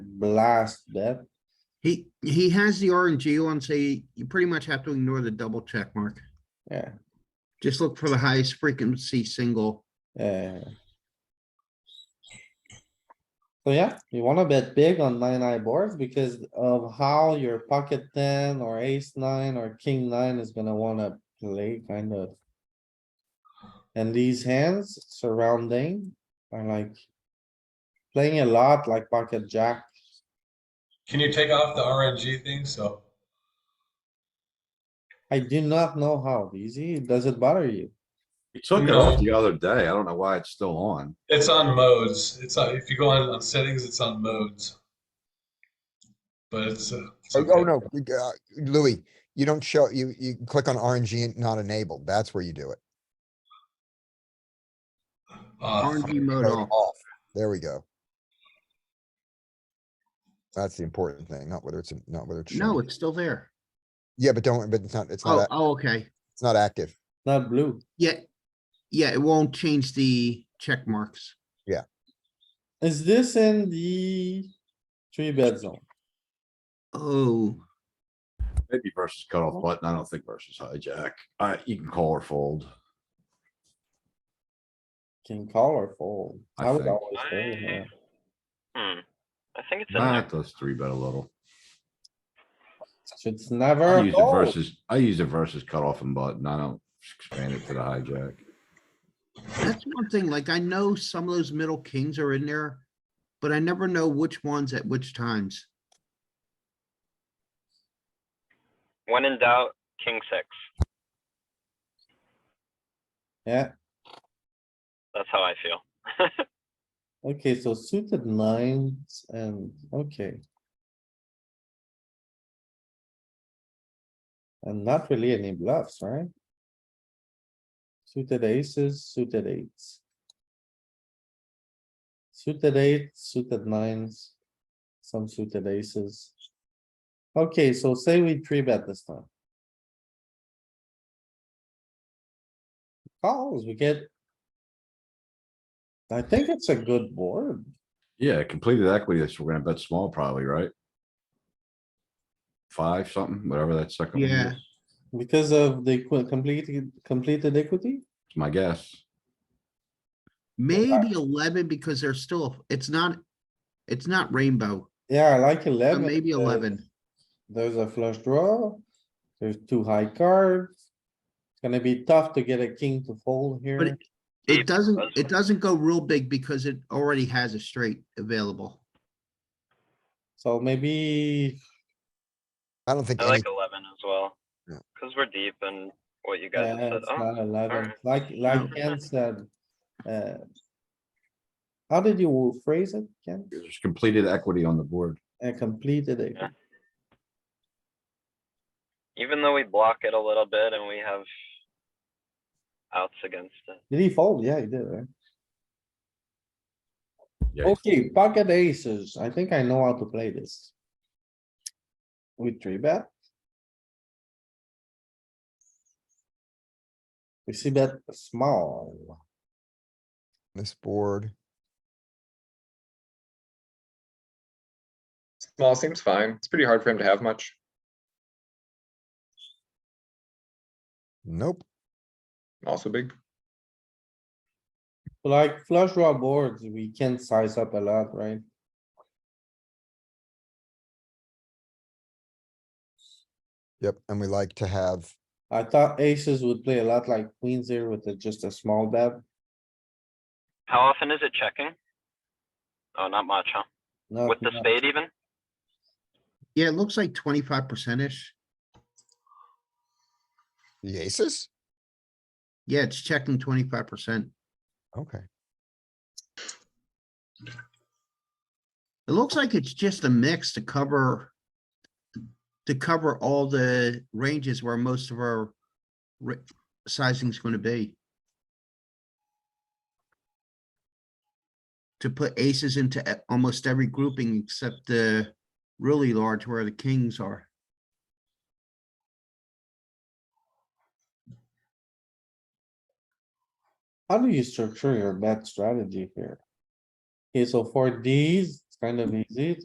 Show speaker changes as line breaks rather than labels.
blast bet.
He, he has the RNG on, so you, you pretty much have to ignore the double check mark.
Yeah,
Just look for the highest frequency single.
yeah. So yeah, you wanna bet big on nine eye boards because of how your pocket ten or ace nine or king nine is gonna wanna play kind of. And these hands surrounding are like. Playing a lot like pocket jack.
Can you take off the RNG thing? So
I do not know how, easy. Does it bother you?
You took it
No.
off the other day. I don't know why it's still on.
it's on modes. It's on, if you go on, on settings, it's on modes. But it's. Uh, it's
Oh, oh,
okay.
no, you- uh, Louis, you don't show, you, you click on RNG and not enabled. That's where you do it.
Off.
RNG mode
Mode
off.
off. There we go. That's the important thing, not whether it's, not whether it's.
No,
shown.
it's still there.
Yeah, but don't, but it's not, it's
Oh,
not, ac-
oh, okay.
it's not active.
Not blue.
Yeah. Yeah, it won't change the check marks.
Is this in the three bed zone?
Oh,
Maybe versus cutoff button. I don't think versus hijack. Uh, you can call or fold.
Can call or fold?
I
I would
think.
always fold here.
Hmm, I think it's in
Nah,
there.
it does three bet a little.
It's
I
never
use it
fold.
versus, I use it versus cutoff and button. I don't expand it to the hijack.
that's one thing, like I know some of those middle kings are in there, but I never know which ones at which times.
When in doubt, king six.
Yeah,
That's how I feel.
okay, so suited nines and, okay. And not really any bluffs, right? Suited aces, suited eights. Suited eight, suited nines, some suited aces. Okay, so say we three bet this time. Calls, we get I think it's a good board.
Yeah, completed equity. That's, we're gonna bet small probably, right? Five something, whatever that second one
Yeah.
is,
Because of the que- completed, completed equity?
It's my guess.
Maybe eleven because there's still, it's not, it's not rainbow,
Yeah, I like
but
eleven.
Uh, maybe
because
eleven.
There's a flush draw. There's two high cards. It's gonna be tough to get a king to fold
But
here.
it- it doesn't, it doesn't go real big because it already has a straight available.
So maybe,
I don't think
I
any,
like eleven as well.
Yeah.
Cause we're deep and what you guys
yeah,
have said.
uh, it's
Oh,
not eleven,
alright.
like, like
No.
Ken said. uh, How did you phrase it, Ken?
There's completed equity on the board.
A completed it.
Yeah. even though we block it a little bit and we have outs against it.
Did he fold? Yeah, he did, right?
Yeah.
Okay, pocket aces. I think I know how to play this. We three bet. We see that small.
this board,
Small seems fine. It's pretty hard for him to have much.
nope.
Also big.
Like flush draw boards, we can size up a lot, right?
Yep, and we like to have,
I thought aces would play a lot like queens here with a- just a small bet.
How often is it checking? Oh, not much, huh?
Uh, Not
With the
much.
spade even?
Yeah, it looks like twenty-five percent-ish.
the aces?
Yeah, it's checking twenty-five percent.
Okay,
It looks like it's just a mix to cover. To cover all the ranges where most of our. ra- Sizing's gonna be. To put aces into e- almost every grouping except the really large where the kings are.
How do you structure your bet strategy here? Okay, so for these, it's kind of easy.